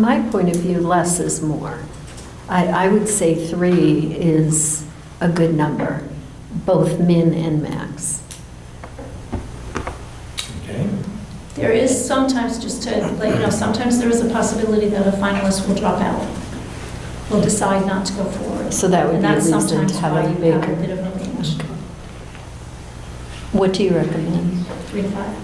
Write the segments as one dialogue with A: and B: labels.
A: My point of view, less is more. I, I would say three is a good number, both min and max.
B: Okay.
C: There is sometimes, just to let you know, sometimes there is a possibility that a finalist will drop out, will decide not to go forward.
A: So that would
C: And
A: be a
C: that's
A: reason to
C: sometimes
A: have
C: why
A: a
C: you
A: bigger-
C: A bit of a range,
A: What do you recommend?
C: three to five.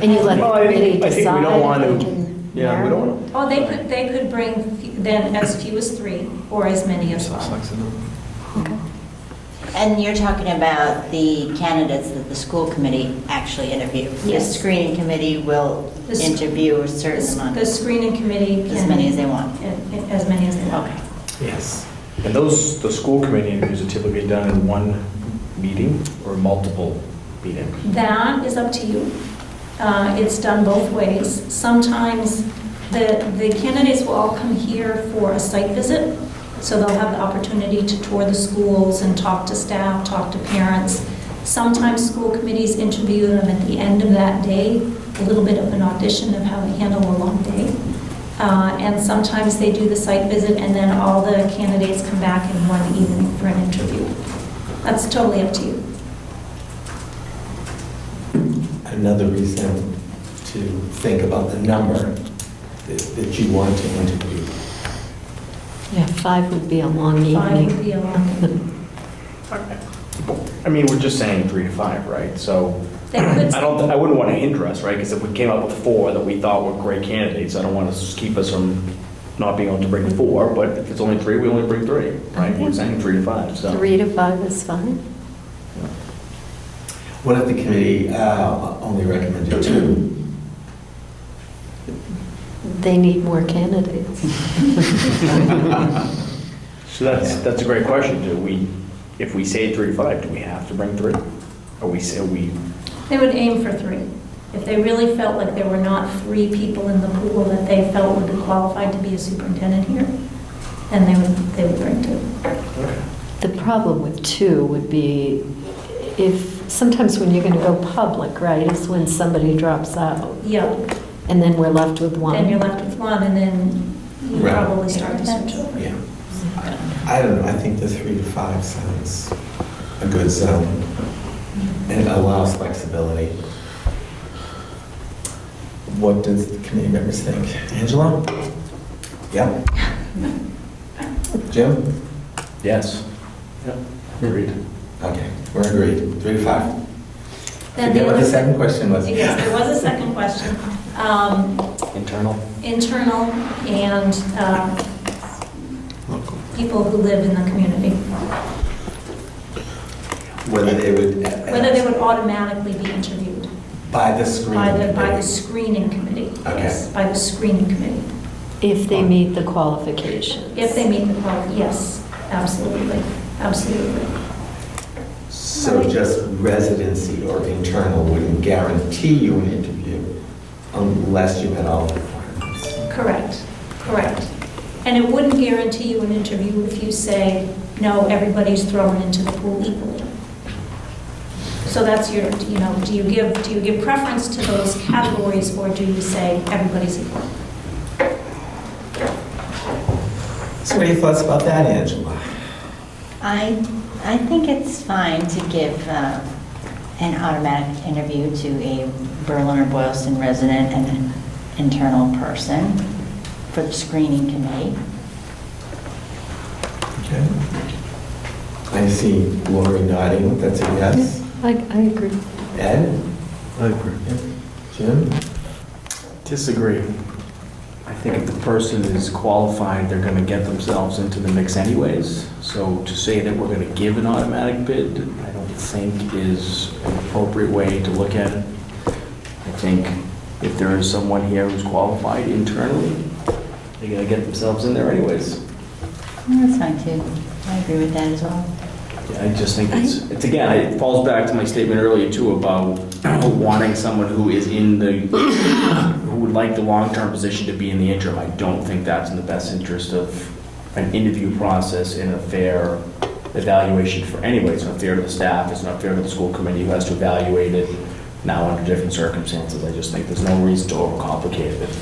A: And you let
B: Well, Oh,
A: the
B: I think- I
A: committee
B: think we
A: decide
B: don't want
A: if
B: to-
A: they can.
B: Yeah, we
A: narrow?
B: don't want to.
C: Oh, they could, they could bring fe- then as few as three or as many as five.
D: And you're talking about the candidates that the school committee actually interview. The
C: Yes.
D: screening committee will
C: The sc-
D: interview a
C: The
D: certain
C: s-
D: amount,
C: the screening committee can.
D: as many as they want.
C: and- and As many as they want.
D: Okay.
B: Yes. And those, the school committee interviews are typically done in one meeting or multiple meetings?
C: That is up to you. Uh, It's done both ways. Sometimes the, the candidates will all come here for a site visit, so they'll have the opportunity to tour the schools and talk to staff, talk to parents. Sometimes school committees interview them at the end of that day, a little bit of an audition of how they handle a long day. Uh, And sometimes they do the site visit, and then all the candidates come back in one evening for an interview. That's totally up to you.
E: another reason to think about the number that that you want to interview.
A: Yeah, five would be a long
C: Five
A: evening.
C: would be a lot.
B: I mean, we're just saying three to five, right? So
C: They could,
B: I don't, I wouldn't want to hinder us, right? Because if we came up with four that we thought were great candidates, I don't want to keep us from not being able to bring four, but if it's only three, we only bring three, right? We're saying three to five, so.
A: Three to five is fine.
E: What if the committee uh, only recommended two?
A: They need more candidates.
B: So that's, that's a great question. Do we, if we say three to five, do we have to bring three? Or we say, we,
C: they would aim for three. If they really felt like there were not three people in the pool that they felt would be qualified to be a superintendent here, then they would, they would bring two.
A: The problem with two would be if, sometimes when you're going to go public, right, is when somebody drops out,
C: Yeah,
A: and then we're left with one.
C: then you're left with one, and then you
E: Right.
C: probably start to switch over.
E: Yeah. I don't know, I think the three to five sounds a good zone and allows flexibility. What does the committee members think? Angela? Yep. Jim?
B: yes. Yep. Agreed.
E: Okay, we're agreed, three to five.
C: Then
E: Forget
C: the
E: what the
C: other-
E: second question was.
C: Yes, there was a second question. Um,
B: Internal?
C: Internal and um, people who live in the community,
E: Whether they would.
C: whether they would automatically be interviewed.
E: By the screen.
C: By the, by the screening committee.
E: Okay.
C: Yes, By the screening committee.
A: If they meet the qualifications.
C: If they meet the qual, yes, absolutely, absolutely.
E: So just residency or internal wouldn't guarantee you an interview unless you met all the requirements.
C: Correct, correct. And it wouldn't guarantee you an interview if you say, no, everybody's thrown into the pool equally. So that's your, you know, do you give, do you give preference to those categories or do you say everybody's equal?
E: So what are your thoughts about that, Angela?
D: I, I think it's fine to give uh, an automatic interview to a Berlin or Boylston resident and an internal person for the screening committee.
E: Okay. I see Lori nodding, that's a yes.
A: I, I agree.
E: Ed?
F: I agree.
E: Jim?
F: Disagree. I think if the person is qualified, they're going to get themselves into the mix anyways. So to say that we're going to give an automatic bid, I don't think is an appropriate way to look at it. I think if there is someone here who's qualified internally, they're going to get themselves in there anyways.
D: No, That's fine too. I agree with that as well.
F: Yeah, I just think it's, it's again, it falls back to my statement earlier too about wanting someone who is in the, who would like the long-term position to be in the interim. I don't think that's in the best interest of an interview process and a fair evaluation for anybody. It's not fair to the staff, it's not fair to the school committee who has to evaluate it now under different circumstances. I just think there's no reason to overcomplicate it.